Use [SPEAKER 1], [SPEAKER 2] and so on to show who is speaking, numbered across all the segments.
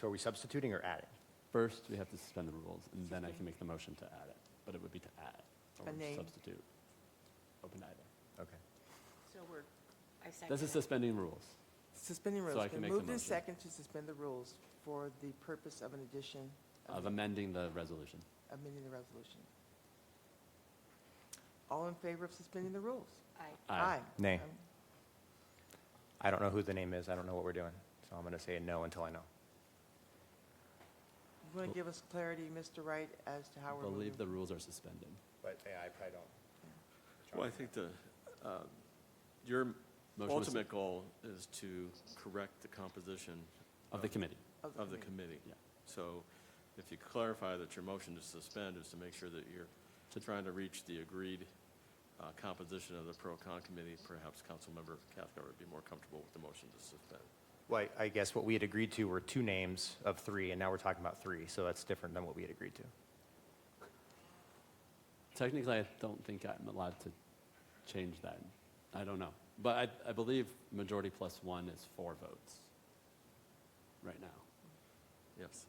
[SPEAKER 1] So are we substituting or adding?
[SPEAKER 2] First, we have to suspend the rules, and then I can make the motion to add it, but it would be to add or
[SPEAKER 3] A name.
[SPEAKER 2] substitute. Open to either.
[SPEAKER 1] Okay.
[SPEAKER 4] So we're, I second.
[SPEAKER 2] This is suspending rules.
[SPEAKER 3] Suspending
[SPEAKER 2] So
[SPEAKER 3] rules.
[SPEAKER 2] I
[SPEAKER 3] It's
[SPEAKER 2] can
[SPEAKER 3] been
[SPEAKER 2] make the
[SPEAKER 3] Moved in
[SPEAKER 2] motion.
[SPEAKER 3] second to suspend the rules for the purpose of an addition
[SPEAKER 2] of
[SPEAKER 3] of
[SPEAKER 2] amending the resolution.
[SPEAKER 3] amending the resolution. All in favor of suspending the rules?
[SPEAKER 4] Aye.
[SPEAKER 1] Nay.
[SPEAKER 3] Um,
[SPEAKER 1] I don't know who the name is. I don't know what we're doing. So I'm going to say no until I know.
[SPEAKER 3] You want to give us clarity, Mr. Wright, as to
[SPEAKER 2] I
[SPEAKER 3] how we're moving?
[SPEAKER 2] believe the rules are suspended.
[SPEAKER 1] But yeah, I probably don't.
[SPEAKER 5] Well, I think the, uh, your
[SPEAKER 2] Motion is-
[SPEAKER 5] ultimate goal is to correct the composition
[SPEAKER 2] Of the committee.
[SPEAKER 5] of the committee.
[SPEAKER 2] Yeah.
[SPEAKER 5] So if you clarify that your motion to suspend is to make sure that you're trying to reach the agreed uh, composition of the pro-con committee, perhaps Councilmember Cathcart would be more comfortable with the motion to suspend.
[SPEAKER 1] Well, I- I guess what we had agreed to were two names of three, and now we're talking about three. So that's different than what we had agreed to.
[SPEAKER 2] Technically, I don't think I'm allowed to change that. I don't know. But I, I believe majority plus one is four votes right now.
[SPEAKER 5] Yes,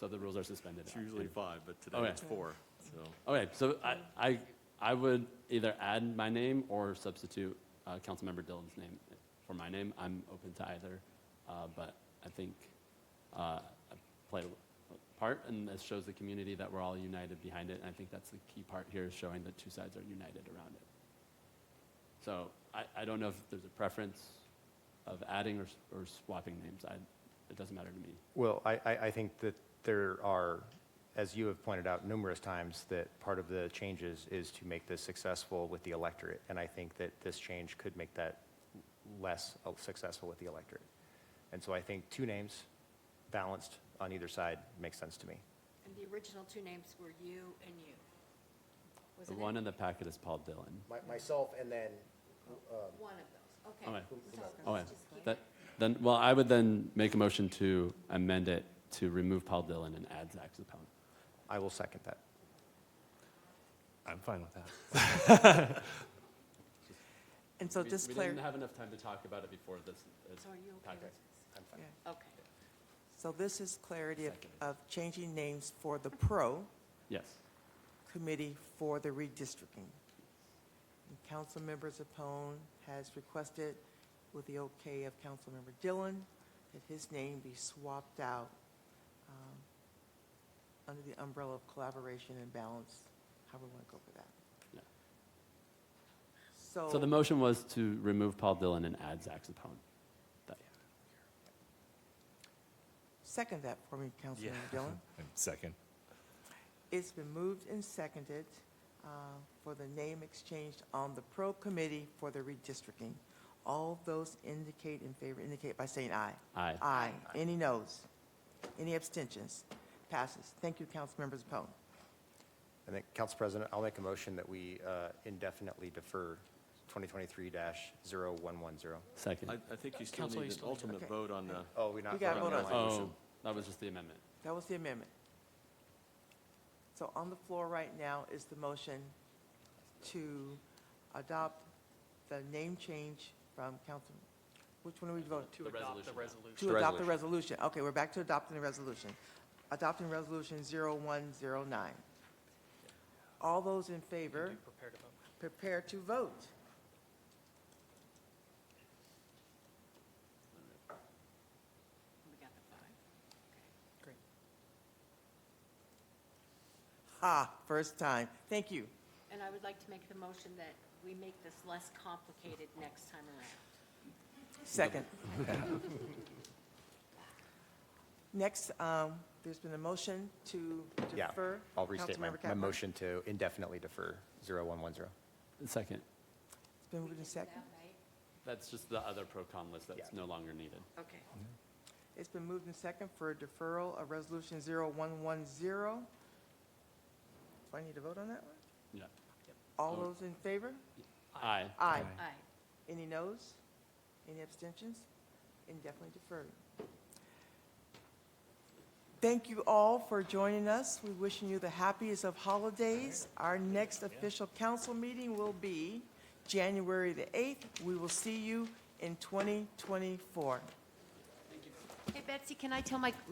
[SPEAKER 2] So the rules are suspended.
[SPEAKER 5] it's usually
[SPEAKER 2] And-
[SPEAKER 5] five, but today
[SPEAKER 2] Okay.
[SPEAKER 5] it's four, so.
[SPEAKER 2] Okay, so I, I, I would either add my name or substitute uh, Councilmember Dillon's name for my name. I'm open to either, uh, but I think uh, I played a part, and this shows the community that we're all united behind it. And I think that's the key part here is showing that two sides are united around it. So I, I don't know if there's a preference of adding or, s- or swapping names. I, it doesn't matter to me.
[SPEAKER 1] Well, I, I, I think that there are, as you have pointed out numerous times, that part of the changes is to make this successful with the electorate. And I think that this change could make that less uh, successful with the electorate. And so I think two names, balanced on either side, makes sense to me.
[SPEAKER 4] And the original two names were you and you.
[SPEAKER 2] The
[SPEAKER 4] Wasn't it?
[SPEAKER 2] one in the packet is Paul Dillon.
[SPEAKER 1] Myself and then,
[SPEAKER 4] One of those, okay.
[SPEAKER 2] Okay.
[SPEAKER 4] So
[SPEAKER 2] Okay,
[SPEAKER 4] let's just keep
[SPEAKER 2] Oh, that,
[SPEAKER 4] it.
[SPEAKER 2] then, well, I would then make a motion to amend it to remove Paul Dillon and add Zach Zepelin.
[SPEAKER 1] I will second that.
[SPEAKER 6] I'm fine with that.
[SPEAKER 3] And so
[SPEAKER 2] We-
[SPEAKER 3] just
[SPEAKER 2] We
[SPEAKER 3] clar,
[SPEAKER 2] didn't have enough time to talk about it before this. this-
[SPEAKER 4] So are you okay
[SPEAKER 2] Packet.
[SPEAKER 4] with this?
[SPEAKER 3] yeah.
[SPEAKER 4] Okay.
[SPEAKER 3] so this is clarity of,
[SPEAKER 2] Second.
[SPEAKER 3] of changing names for the pro
[SPEAKER 2] Yes,
[SPEAKER 3] committee for the redistricting. And Councilmember Zepone has requested, with the okay of Councilmember Dillon, that his name be swapped out um, under the umbrella of collaboration and balance, however we want to go for
[SPEAKER 2] Yeah.
[SPEAKER 3] that.
[SPEAKER 2] so the
[SPEAKER 3] So,
[SPEAKER 2] motion was to remove Paul Dillon and add Zach Zepelin. That-
[SPEAKER 3] second that for me, Councilmember Dillon.
[SPEAKER 6] Second.
[SPEAKER 3] It's been moved and seconded uh, for the name exchange on the pro committee for the redistricting. All those indicate in favor, indicate by saying aye.
[SPEAKER 2] Aye.
[SPEAKER 3] Aye. Any noes? Any abstentions? Passes. Thank you, Councilmember Zepone.
[SPEAKER 1] And then, Council President, I'll make a motion that we uh, indefinitely defer 2023-0110.
[SPEAKER 5] I,
[SPEAKER 2] Second.
[SPEAKER 5] I think you still
[SPEAKER 6] Counsel, you
[SPEAKER 5] need an
[SPEAKER 6] still need-
[SPEAKER 5] ultimate
[SPEAKER 3] Okay.
[SPEAKER 5] vote on the,
[SPEAKER 1] Oh, we not.
[SPEAKER 3] We gotta
[SPEAKER 1] voting on
[SPEAKER 3] vote
[SPEAKER 1] the
[SPEAKER 3] on it.
[SPEAKER 1] motion?
[SPEAKER 2] Oh, that was just the amendment.
[SPEAKER 3] That was the amendment. So on the floor right now is the motion to adopt the name change from Council, which one are we voting?
[SPEAKER 2] To adopt the resolution.
[SPEAKER 3] To adopt the resolution. Okay, we're back to adopting the resolution. Adopting Resolution 0109. All those in favor? Prepare to vote.
[SPEAKER 4] We got the five.
[SPEAKER 3] Ha, first time. Thank you.
[SPEAKER 4] And I would like to make the motion that we make this less complicated next time around.
[SPEAKER 3] Second. Next, um, there's been a motion to
[SPEAKER 1] Yeah,
[SPEAKER 3] defer.
[SPEAKER 1] I'll restate my,
[SPEAKER 3] Councilmember
[SPEAKER 1] my
[SPEAKER 3] Capper.
[SPEAKER 1] motion to indefinitely defer 0110.
[SPEAKER 2] Second.
[SPEAKER 3] It's been moved and seconded.
[SPEAKER 4] That, right?
[SPEAKER 2] That's just the other pro-con list that's
[SPEAKER 1] Yeah.
[SPEAKER 2] no longer needed.
[SPEAKER 4] Okay.
[SPEAKER 2] Mm-hmm.
[SPEAKER 3] It's been moved and seconded for deferral of Resolution 0110. Do I need to vote on that one?
[SPEAKER 2] Yeah.
[SPEAKER 3] All
[SPEAKER 2] Oh.
[SPEAKER 3] those in favor?
[SPEAKER 2] Aye.
[SPEAKER 3] Aye.
[SPEAKER 4] Aye.
[SPEAKER 3] Any noes? Any abstentions? Indefinitely deferred. Thank you all for joining us. We're wishing you the happiest of holidays. Our next official council meeting will be January the 8th. We will see you in 2024.
[SPEAKER 4] Hey Betsy, can I tell my